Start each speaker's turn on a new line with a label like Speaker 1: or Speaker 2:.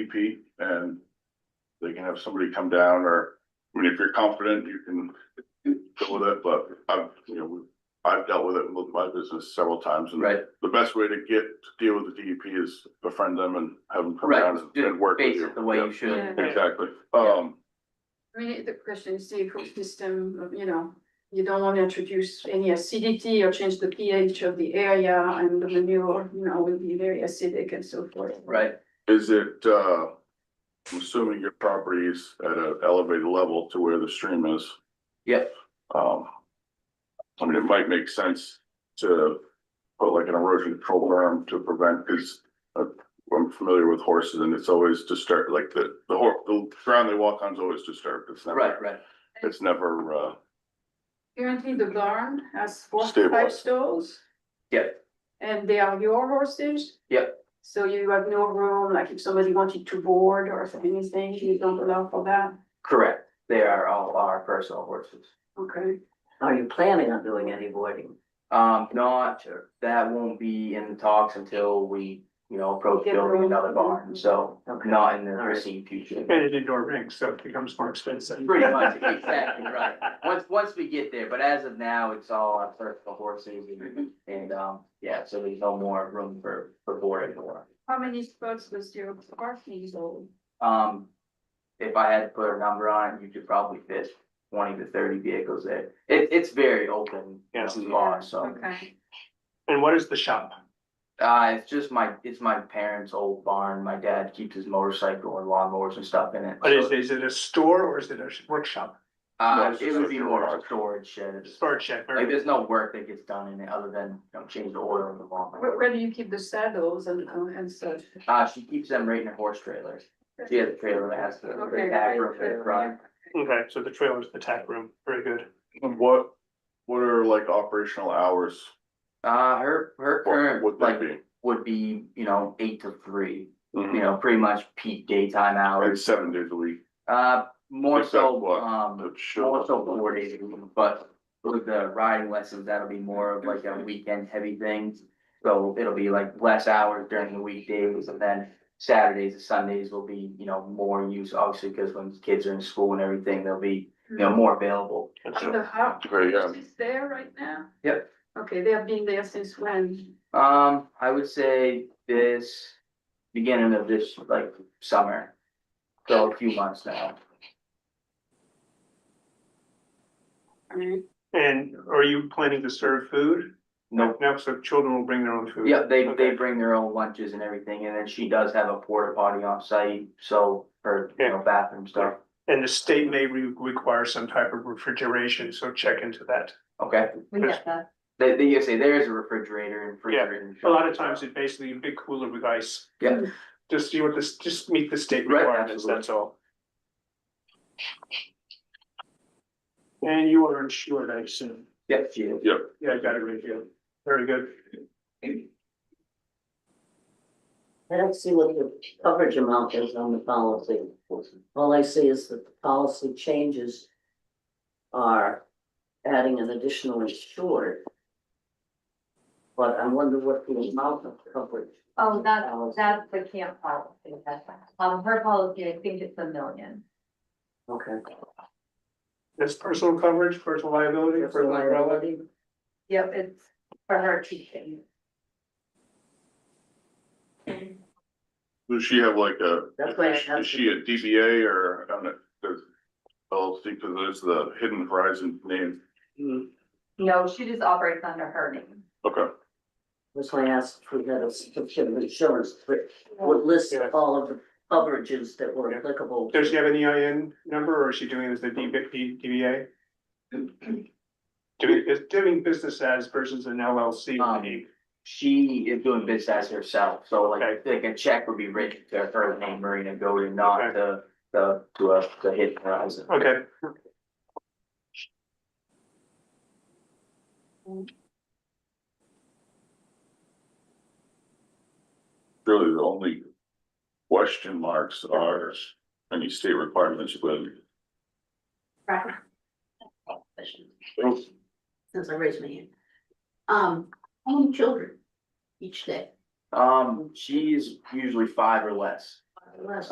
Speaker 1: EP and they can have somebody come down or, I mean, if you're confident, you can deal with it, but I've, you know, I've dealt with it with my business several times and
Speaker 2: Right,
Speaker 1: the best way to get, to deal with the DEP is befriend them and have them come
Speaker 2: right,
Speaker 1: down
Speaker 2: just
Speaker 1: and- and work with
Speaker 2: base
Speaker 1: you.
Speaker 2: it the way you
Speaker 1: Yep,
Speaker 2: should.
Speaker 3: Yeah.
Speaker 1: Exactly. Um,
Speaker 3: I mean, the question is the ecosystem, you know, you don't want to introduce any acidity or change the pH of the area and the manure, you know, will be very acidic and so forth.
Speaker 2: Right,
Speaker 1: is it, uh, I'm assuming your property's at an elevated level to where the stream is?
Speaker 2: Yep.
Speaker 1: Um, I mean, it might make sense to put like an erosion control berm to prevent, because I'm familiar with horses and it's always disturbed, like the, the hor- the ground they walk on is always disturbed. It's never,
Speaker 2: right, right,
Speaker 1: it's never, uh,
Speaker 3: Currently, the barn has forty-five
Speaker 1: Stabilized.
Speaker 3: stalls
Speaker 2: yeah,
Speaker 3: and they are your horses.
Speaker 2: Yep.
Speaker 3: So you have no room, like if somebody wanted to board or anything, you don't allow for that.
Speaker 2: correct. They are all our personal horses.
Speaker 3: Okay.
Speaker 4: Are you planning on doing any boarding?
Speaker 2: Um, not, that won't be in the talks until we, you know, approach
Speaker 3: Get
Speaker 2: building
Speaker 3: rolling.
Speaker 2: another barn, so
Speaker 4: Okay.
Speaker 2: not in the
Speaker 4: All right.
Speaker 2: foreseeable future.
Speaker 5: And an indoor rink, so it becomes more expensive.
Speaker 2: Pretty much, exactly, right. Once, once we get there, but as of now, it's all our personal horses and, and, um, yeah, so there's no more room for, for boarding or.
Speaker 3: How many spots does your parking hold?
Speaker 2: Um, if I had to put a number on it, you could probably fit twenty to thirty vehicles there. It, it's very open. you know,
Speaker 5: Yes.
Speaker 2: Bar, so,
Speaker 3: Okay.
Speaker 5: And what is the shop?
Speaker 2: uh, it's just my, it's my parents' old barn. My dad keeps his motorcycle and lawnmowers and stuff in it.
Speaker 5: What is,
Speaker 2: so,
Speaker 5: is it a store or is it a workshop,
Speaker 2: Uh,
Speaker 1: It's
Speaker 2: it
Speaker 1: just
Speaker 2: would
Speaker 1: a
Speaker 2: be more of a
Speaker 1: garage.
Speaker 2: storage shed.
Speaker 5: storage shed? or-
Speaker 2: Like, there's no work that gets done in it other than, you know, change the oil in the
Speaker 3: Where,
Speaker 2: lawnmower.
Speaker 3: where do you keep the saddles and, and such?
Speaker 2: Uh, she keeps them right in her horse trailers. She has a trailer that has the
Speaker 3: Okay.
Speaker 2: the back room for the front.
Speaker 5: Okay, so the trailer's the tack room, very good.
Speaker 1: what, what are like operational hours?
Speaker 2: Uh, her, her
Speaker 1: What
Speaker 2: current,
Speaker 1: would
Speaker 2: like,
Speaker 1: that be?
Speaker 2: would be, you know, eight to three, you
Speaker 1: Mhm.
Speaker 2: know, pretty much peak daytime
Speaker 1: Like
Speaker 2: hours.
Speaker 1: seven days a week.
Speaker 2: Uh, more
Speaker 1: Except
Speaker 2: so,
Speaker 1: what?
Speaker 2: um,
Speaker 1: But sure.
Speaker 2: more so four days, a week, but with the riding lessons, that'll be more of like a weekend heavy thing. So it'll be like less hours during the weekdays and then Saturdays and Sundays will be, you know, more use, obviously, because when kids are in school and everything, they'll be, you know, more available.
Speaker 3: And the house
Speaker 1: Okay, yeah.
Speaker 3: is there right now?
Speaker 2: Yep.
Speaker 3: Okay, they have been there since when?
Speaker 2: Um, I would say this, beginning of this, like, summer. So a few months now.
Speaker 5: And are you planning to serve food?
Speaker 2: No,
Speaker 5: No, so children will bring their own food?
Speaker 2: yeah, they, they
Speaker 5: Okay.
Speaker 2: bring their own lunches and everything, and then she does have a porta potty on site, so her, you know, bathroom stuff.
Speaker 5: And the state may re- require some type of refrigeration, so check into that.
Speaker 2: Okay,
Speaker 5: We get
Speaker 3: that.
Speaker 2: they, they, you say there is a refrigerator and
Speaker 5: Yeah,
Speaker 2: freezer.
Speaker 5: A lot of times it's basically a big cooler with ice.
Speaker 2: Yeah.
Speaker 5: Just, you want this, just meet the state
Speaker 2: Right,
Speaker 5: requirements,
Speaker 2: absolutely.
Speaker 5: that's all. And you are insured, I assume.
Speaker 2: Yeah, she is.
Speaker 5: Yeah, I got it right here. Very good.
Speaker 4: I don't see what the coverage amount is on the policy. All I see is that the policy changes are adding an additional insured. But I wonder what the amount of coverage.
Speaker 6: Oh, that's,
Speaker 4: Policy.
Speaker 6: that's the camp policy, that's, um, her policy, I think it's a million.
Speaker 4: Okay.
Speaker 5: That's personal coverage, personal liability, personal umbrella.
Speaker 4: Liability.
Speaker 6: Yep, it's for her teaching.
Speaker 1: Does she have like a,
Speaker 4: That's why I
Speaker 1: is
Speaker 4: asked
Speaker 1: she a DBA or, I don't know, there's, LLC, because there's the Hidden Horizon name,
Speaker 6: No, she just operates under her name.
Speaker 1: okay.
Speaker 4: That's why I asked if we had a certificate of insurance, which would list
Speaker 5: Yeah.
Speaker 4: all of the coverages that were
Speaker 5: Yeah.
Speaker 4: applicable.
Speaker 5: Does she have an EIN number or is she doing it as the DB D- DBA? Doing, is doing business as versus an LLC.
Speaker 2: Um, She is doing business as herself, so like, like a check would be written to her name, Marina Golding, not
Speaker 5: Okay.
Speaker 2: to, to, to us, to hit horizon.
Speaker 5: Okay,
Speaker 1: Really, the only question marks are any state requirements with.
Speaker 7: Right. Question, Since I raised my hand. Um, how many children each day?
Speaker 2: Um, she's usually five or less.
Speaker 7: Less.